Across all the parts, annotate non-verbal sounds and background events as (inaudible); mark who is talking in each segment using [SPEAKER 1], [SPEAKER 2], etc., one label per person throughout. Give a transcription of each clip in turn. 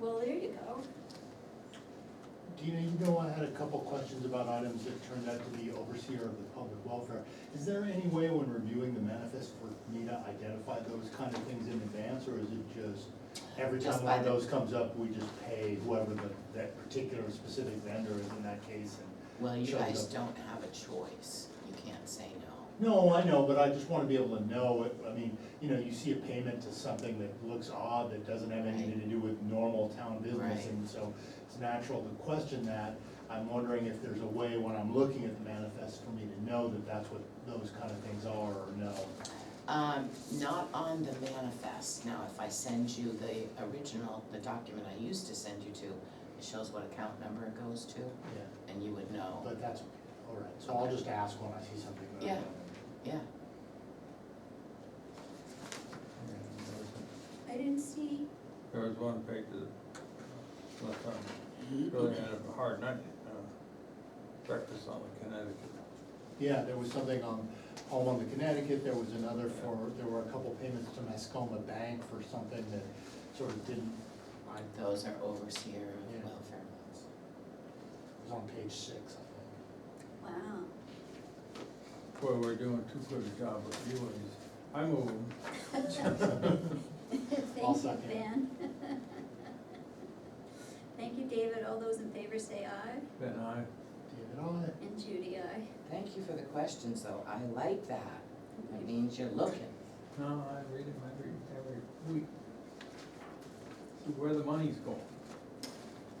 [SPEAKER 1] Well, there you go.
[SPEAKER 2] Dina, you know, I had a couple questions about items that turned out to be overseer of the public welfare. Is there any way when reviewing the manifest for me to identify those kind of things in advance, or is it just every
[SPEAKER 3] Just
[SPEAKER 2] time
[SPEAKER 3] by
[SPEAKER 2] one of
[SPEAKER 3] the-
[SPEAKER 2] those comes up, we just pay whoever the, that particular specific vendor is in that case? and-
[SPEAKER 3] Well, you
[SPEAKER 2] Shows
[SPEAKER 3] guys
[SPEAKER 2] up.
[SPEAKER 3] don't have a choice, you can't say no.
[SPEAKER 2] No, I know, but I just wanna be able to know, it. I mean, you know, you see a payment to something that looks odd, that doesn't have anything to do with normal town business,
[SPEAKER 3] Right.
[SPEAKER 2] and so it's natural to question that. I'm wondering if there's a way when I'm looking at the manifest for me to know that that's what those kind of things are, or no.
[SPEAKER 3] Um, not on the manifest, now if I send you the original, the document I used to send you to, it shows what account number it goes to,
[SPEAKER 2] Yeah,
[SPEAKER 3] and you would know,
[SPEAKER 2] but that's, all right, so I'll just ask when I see something that I
[SPEAKER 3] Yeah.
[SPEAKER 2] don't.
[SPEAKER 3] yeah.
[SPEAKER 1] I didn't see,
[SPEAKER 4] There was one page that, look, I'm really had a hard night, uh, breakfast on the Connecticut.
[SPEAKER 2] Yeah, there was something on, home on the Connecticut, there was another for, there were a couple payments to Mascoma Bank for something that sort of didn't, I
[SPEAKER 3] Those are overseer
[SPEAKER 2] Yeah.
[SPEAKER 3] of welfare laws.
[SPEAKER 2] It was on page six, I
[SPEAKER 1] wow. (laughs)
[SPEAKER 4] Boy, we're doing too good a job with you and these. I move,
[SPEAKER 2] I'll
[SPEAKER 1] Thank you,
[SPEAKER 2] second.
[SPEAKER 1] Ben. (laughs) Thank you, David. All those in favor say aye,
[SPEAKER 4] then I,
[SPEAKER 2] think. David, on it.
[SPEAKER 1] and Judy, aye.
[SPEAKER 3] Thank you for the questions, though, I like that, it means you're looking.
[SPEAKER 4] no, I read them every, every week. See Where the money's going.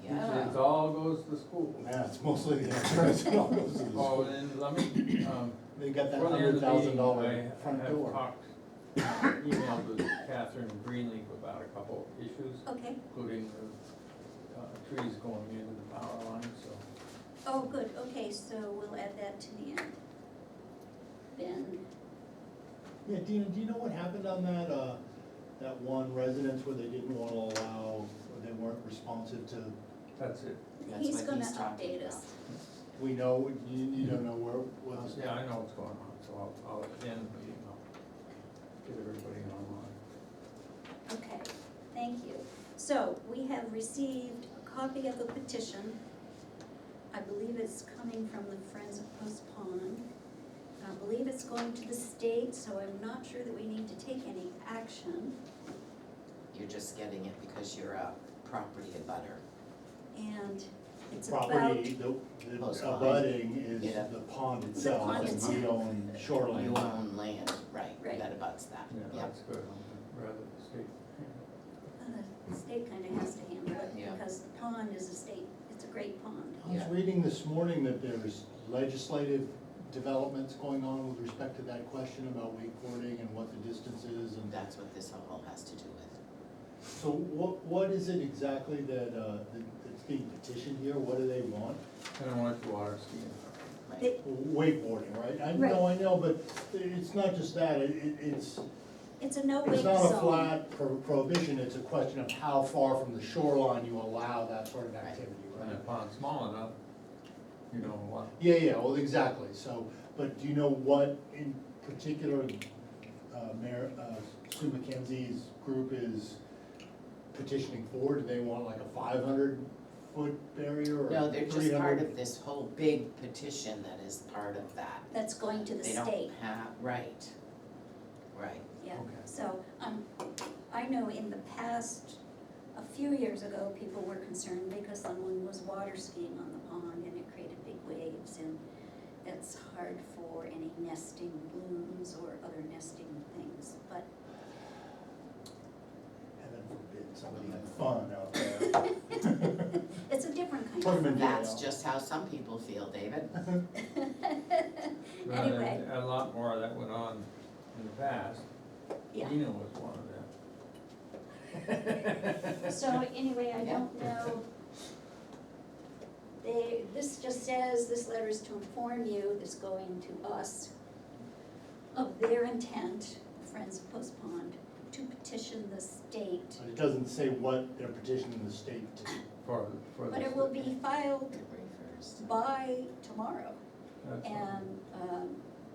[SPEAKER 4] Usually
[SPEAKER 3] Yeah,
[SPEAKER 4] It all goes to school.
[SPEAKER 2] Yeah, it's mostly the insurance that all goes to
[SPEAKER 4] Oh,
[SPEAKER 2] the school.
[SPEAKER 4] then let me, um,
[SPEAKER 2] They got that
[SPEAKER 4] Earlier in
[SPEAKER 2] hundred
[SPEAKER 4] the
[SPEAKER 2] thousand
[SPEAKER 4] meeting,
[SPEAKER 2] dollar
[SPEAKER 4] I-
[SPEAKER 2] front door.
[SPEAKER 4] I have talked, emailed with Catherine Greenleaf about a couple of issues,
[SPEAKER 1] Okay,
[SPEAKER 4] including the uh, trees going into the power line, so.
[SPEAKER 1] oh, good, okay, so we'll add that to the end. Ben,
[SPEAKER 2] Yeah, Dina, do you know what happened on that, uh, that one residence where they didn't wanna allow, or they weren't responsive to,
[SPEAKER 4] That's it.
[SPEAKER 3] That's
[SPEAKER 1] he's
[SPEAKER 3] what
[SPEAKER 1] gonna
[SPEAKER 3] he's talking
[SPEAKER 1] update us.
[SPEAKER 2] we know, you, you don't know where, what was.
[SPEAKER 4] Yeah, I know what's going on, so I'll, I'll at the end of the meeting, I'll get everybody online.
[SPEAKER 1] Okay, thank you. So, we have received a copy of the petition. I believe it's coming from the Friends of Post Pond. I believe it's going to the state, so I'm not sure that we need to take any action.
[SPEAKER 3] You're just getting it because you're a property abutter.
[SPEAKER 1] And it's about.
[SPEAKER 2] Property, the, the
[SPEAKER 3] Post line.
[SPEAKER 2] abutting is
[SPEAKER 3] Yeah.
[SPEAKER 2] the pond itself,
[SPEAKER 1] pond
[SPEAKER 2] and we
[SPEAKER 1] itself.
[SPEAKER 2] own shoreline.
[SPEAKER 3] You own land, right,
[SPEAKER 1] Right.
[SPEAKER 3] that abuts that,
[SPEAKER 4] Yeah,
[SPEAKER 3] yeah.
[SPEAKER 4] that's good, I'd rather the state.
[SPEAKER 1] Uh, The state kind of has to handle it
[SPEAKER 3] Yeah.
[SPEAKER 1] because the pond is a state, it's a great pond.
[SPEAKER 2] I was
[SPEAKER 3] Yeah.
[SPEAKER 2] reading this morning that there's legislative developments going on with respect to that question about wakeboarding and what the distance is and.
[SPEAKER 3] That's what this all has to do with.
[SPEAKER 2] So what, what is it exactly that, uh, that- that's being petitioned here? What do they want?
[SPEAKER 4] I don't want the water skiing.
[SPEAKER 3] Right.
[SPEAKER 1] They-
[SPEAKER 2] Wakeboarding, right? I know, I know, but it's not just that, it, it- it's,
[SPEAKER 1] It's a no-wake
[SPEAKER 2] it's not a
[SPEAKER 1] zone.
[SPEAKER 2] flat pro- prohibition, it's a question of how far from the shoreline you allow that sort of activity,
[SPEAKER 4] And
[SPEAKER 2] right?
[SPEAKER 4] if pond's small enough, you know, what,
[SPEAKER 2] Yeah, yeah, well, exactly, so, but do you know what in particular, uh, Mayor, uh, Sue McKenzie's group is petitioning for? Do they want like a five hundred foot barrier or three hundred?
[SPEAKER 3] No, they're just part of this whole big petition that is part of that.
[SPEAKER 1] That's going to the
[SPEAKER 3] They
[SPEAKER 1] state.
[SPEAKER 3] don't have, right, right.
[SPEAKER 1] Yeah,
[SPEAKER 2] Okay.
[SPEAKER 1] so, um, I know in the past, a few years ago, people were concerned because someone was water skiing on the pond and it created big waves and it's hard for any nesting blooms or other nesting things, but (laughs)
[SPEAKER 2] Heaven forbid somebody had fun out there.
[SPEAKER 1] it's a different kind
[SPEAKER 2] Put 'em
[SPEAKER 1] of.
[SPEAKER 2] in
[SPEAKER 3] That's
[SPEAKER 2] jail.
[SPEAKER 3] just how some people feel, David.
[SPEAKER 4] Well, there-
[SPEAKER 1] Anyway,
[SPEAKER 4] A lot more of that went on in the past.
[SPEAKER 1] (laughs) Yeah.
[SPEAKER 4] Nina was one of them.
[SPEAKER 1] so anyway, I
[SPEAKER 3] Yeah.
[SPEAKER 1] don't know. They, this just says, this letter is to inform you, this going to us, of their intent, Friends of Post Pond, to petition the state.
[SPEAKER 2] But it doesn't say what they're petitioning the state to.
[SPEAKER 4] For, for the.
[SPEAKER 1] But it will be filed
[SPEAKER 3] February first.
[SPEAKER 1] by tomorrow,
[SPEAKER 4] That's all.
[SPEAKER 1] and, um,